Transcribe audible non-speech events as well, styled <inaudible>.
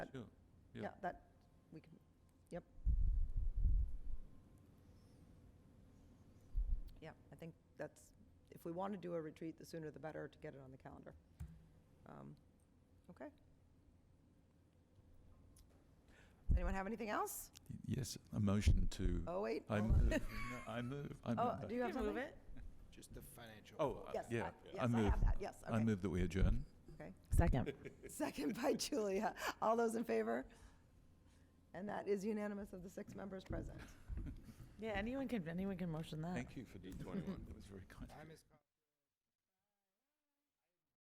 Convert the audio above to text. Yeah. Yeah, that, we can, yep. Yeah, I think that's, if we want to do a retreat, the sooner the better to get it on the calendar. Um, Okay. Anyone have anything else? Yes, a motion to. Oh, wait. I hold on. move, No, I move, I Oh, move. do you have something? move it. Just the financial. Oh, uh, Yes, I- yeah. yes, I move- have that, yes, I okay. move that we adjourn. Okay. Second. <laughs> Second by Julia. All those in favor? And that is unanimous of the six members present. Yeah, anyone can, anyone can motion that. Uh. Thank you for D21. That was very kind. of you. Time is.